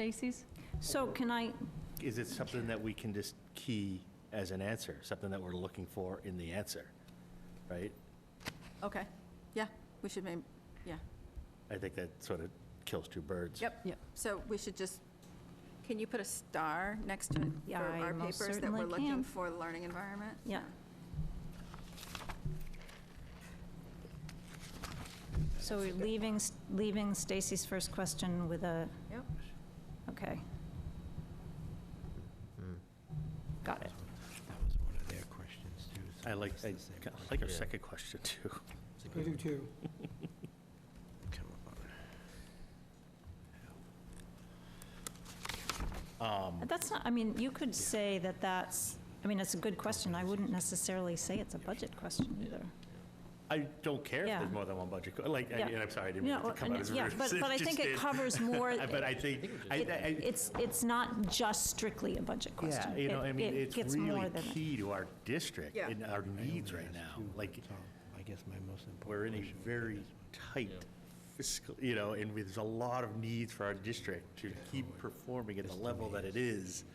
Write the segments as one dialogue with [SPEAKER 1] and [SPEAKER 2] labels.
[SPEAKER 1] Stacy's?
[SPEAKER 2] So can I,
[SPEAKER 3] Is it something that we can just key as an answer, something that we're looking for in the answer, right?
[SPEAKER 4] Okay, yeah, we should maybe, yeah.
[SPEAKER 3] I think that sort of kills two birds.
[SPEAKER 4] Yep.
[SPEAKER 1] Yep.
[SPEAKER 4] So we should just, can you put a star next to it for
[SPEAKER 2] Yeah, I
[SPEAKER 4] our
[SPEAKER 2] most
[SPEAKER 4] papers that
[SPEAKER 2] certainly
[SPEAKER 4] we're
[SPEAKER 2] can.
[SPEAKER 4] looking for the learning environment?
[SPEAKER 2] yeah. So we're leaving, leaving Stacy's first question with a,
[SPEAKER 4] Yep.
[SPEAKER 2] okay.
[SPEAKER 3] Hmm.
[SPEAKER 2] Got it.
[SPEAKER 5] That was one of their questions, too. so
[SPEAKER 3] I like,
[SPEAKER 5] it's the
[SPEAKER 3] I
[SPEAKER 5] same
[SPEAKER 3] kinda
[SPEAKER 5] one.
[SPEAKER 3] like our
[SPEAKER 5] Yeah.
[SPEAKER 3] second question, too.
[SPEAKER 5] It's a
[SPEAKER 6] I
[SPEAKER 5] good
[SPEAKER 6] do
[SPEAKER 5] one.
[SPEAKER 6] too.
[SPEAKER 5] Come on.
[SPEAKER 3] Um,
[SPEAKER 2] That's not, I mean, you could say that that's, I mean, it's a good question. I wouldn't necessarily say it's a budget question either.
[SPEAKER 3] I don't care if
[SPEAKER 2] Yeah.
[SPEAKER 3] there's more than one budget, co- like, I-
[SPEAKER 2] Yeah.
[SPEAKER 3] and I'm sorry, I didn't mean it
[SPEAKER 2] No,
[SPEAKER 3] to come out
[SPEAKER 2] and-
[SPEAKER 3] as
[SPEAKER 2] yeah,
[SPEAKER 3] rude.
[SPEAKER 2] but-
[SPEAKER 3] as
[SPEAKER 2] but I think it
[SPEAKER 3] just did.
[SPEAKER 2] covers more-
[SPEAKER 3] But I think, I,
[SPEAKER 2] It-
[SPEAKER 3] I,
[SPEAKER 2] It's, it's not just strictly a budget question.
[SPEAKER 3] yeah, you know,
[SPEAKER 2] It-
[SPEAKER 3] I mean,
[SPEAKER 2] it
[SPEAKER 3] it's
[SPEAKER 2] gets more
[SPEAKER 3] really
[SPEAKER 2] than-
[SPEAKER 3] key to our district
[SPEAKER 4] Yeah.
[SPEAKER 3] and our
[SPEAKER 5] I only
[SPEAKER 3] needs right
[SPEAKER 5] asked
[SPEAKER 3] now.
[SPEAKER 5] you,
[SPEAKER 3] Like,
[SPEAKER 5] Tom. I guess my most important.
[SPEAKER 3] we're in a
[SPEAKER 5] question would be
[SPEAKER 3] very
[SPEAKER 5] this one.
[SPEAKER 3] tight fiscal, you know, and there's a lot of needs for our district to keep performing at the level that it is,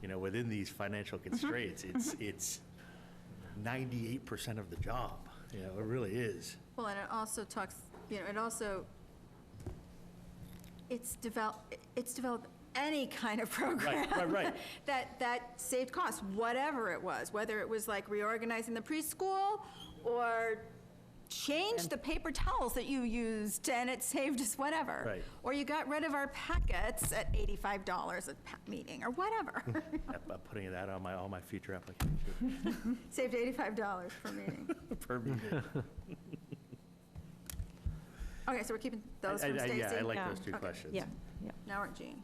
[SPEAKER 3] you know, within these financial
[SPEAKER 4] Mm-hmm.
[SPEAKER 3] constraints. It's, it's 98% of the job, you know, it really is.
[SPEAKER 4] Well, and it also talks, you know, it also, it's develop, it's develop any kind of program.
[SPEAKER 3] right, right.
[SPEAKER 4] That, that saved costs, whatever it was, whether it was like reorganizing the preschool or change the paper towels that you used and it saved us whatever.
[SPEAKER 3] Right.
[SPEAKER 4] Or you got rid of our packets at eighty-five dollars a pa- meeting or whatever.
[SPEAKER 3] I'm I'm putting that on my, all my future applications
[SPEAKER 4] Saved eighty-five dollars per meeting.
[SPEAKER 3] for me.
[SPEAKER 4] Okay, so we're keeping those
[SPEAKER 3] I- I-
[SPEAKER 4] from
[SPEAKER 3] I-
[SPEAKER 4] Stacy?
[SPEAKER 3] Yeah, I like
[SPEAKER 2] Yeah.
[SPEAKER 3] those two
[SPEAKER 4] Okay.
[SPEAKER 3] questions.
[SPEAKER 2] Yeah, yeah.
[SPEAKER 4] Now we're at Jean.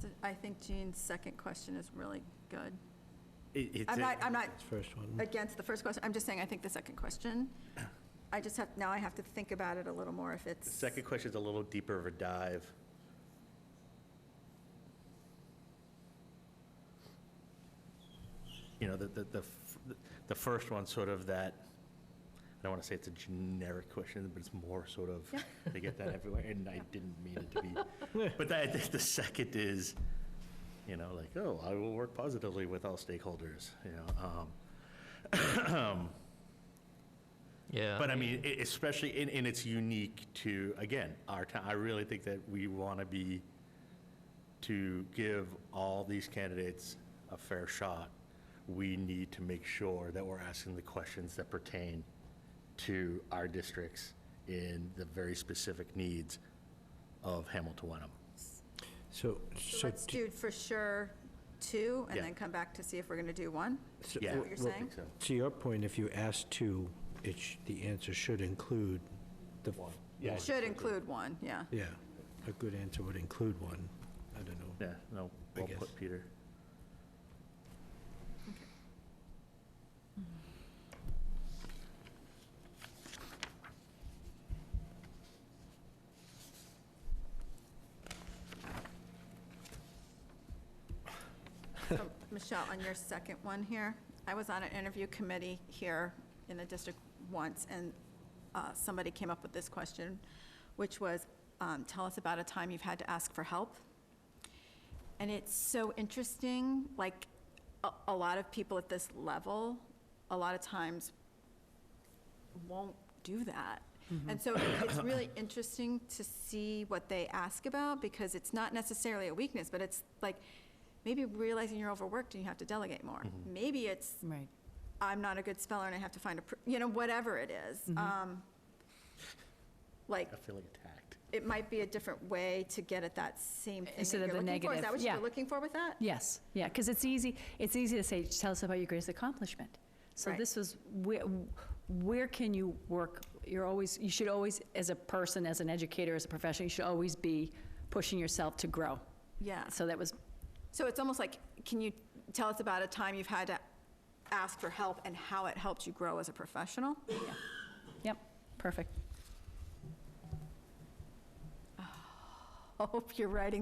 [SPEAKER 4] So I think Jean's second question is really good.
[SPEAKER 3] It- it's
[SPEAKER 4] I'm
[SPEAKER 3] a-
[SPEAKER 4] not, I'm not
[SPEAKER 5] First one.
[SPEAKER 4] against the first question, I'm just saying I think the second question, I just have, now I have to think about it a little more if
[SPEAKER 3] The
[SPEAKER 4] it's.
[SPEAKER 3] second question's a little deeper of a dive. You know, the, the, the f- the first one's sort of that, I don't want to say it's a generic question, but it's more sort of, they get that everywhere, and I didn't mean it to be. But that, the- the second is, you know, like, oh, I will work positively with all stakeholders, you know. um,
[SPEAKER 7] Yeah.
[SPEAKER 3] But I mean, e- especially, and, and it's unique to, again, our town. I really think that we want to be, to give all these candidates a fair shot, we need to make sure that we're asking the questions that pertain to our districts in the very specific needs of Hamilton Wenham.
[SPEAKER 5] So,
[SPEAKER 4] So
[SPEAKER 5] so,
[SPEAKER 4] Let's do for sure two, and
[SPEAKER 3] Yeah.
[SPEAKER 4] then come back to see if we're going to do one.
[SPEAKER 5] so
[SPEAKER 3] Yeah.
[SPEAKER 4] what you're
[SPEAKER 5] well,
[SPEAKER 4] saying?
[SPEAKER 5] to your point, if you ask two, it, sh- the answer should include the. One.
[SPEAKER 3] Yeah,
[SPEAKER 4] Should include one, yeah.
[SPEAKER 5] Yeah, a good answer would include one. I don't know.
[SPEAKER 3] Yeah, no,
[SPEAKER 5] I
[SPEAKER 3] well
[SPEAKER 5] guess.
[SPEAKER 3] put, Peter.
[SPEAKER 4] So, Michelle, on your second one here, I was on an interview committee here in the district once, and uh, somebody came up with this question, which was, um, tell us about a time you've had to ask for help. And it's so interesting, like, a, a lot of people at this level, a lot of times won't do that. And so it's really interesting to see what they ask about, because it's not necessarily a weakness, but it's like, maybe realizing you're overworked and you have to delegate more. Maybe it's,
[SPEAKER 1] Right.
[SPEAKER 4] I'm not a good speller and I have to find a, pr- you know, whatever it is.
[SPEAKER 1] Mm-hmm.
[SPEAKER 4] Um, Like,
[SPEAKER 3] I feel like attacked.
[SPEAKER 4] it might be a different way to get at that same thing that
[SPEAKER 1] Instead
[SPEAKER 4] you're
[SPEAKER 1] of the
[SPEAKER 4] looking for. Is
[SPEAKER 1] negative,
[SPEAKER 4] that what you
[SPEAKER 1] yeah.
[SPEAKER 4] were looking for with that?
[SPEAKER 1] Yes, yeah, because it's easy, it's easy to say, tell us about your greatest accomplishment. So
[SPEAKER 4] Right.
[SPEAKER 1] this was, where, where can you work? You're always, you should always, as a person, as an educator, as a professional, you should always be pushing yourself to grow.
[SPEAKER 4] Yeah.
[SPEAKER 1] So that was,
[SPEAKER 4] So it's almost like, can you tell us about a time you've had to ask for help and how it helped you grow as a professional?
[SPEAKER 1] yep, perfect.
[SPEAKER 4] hope you're writing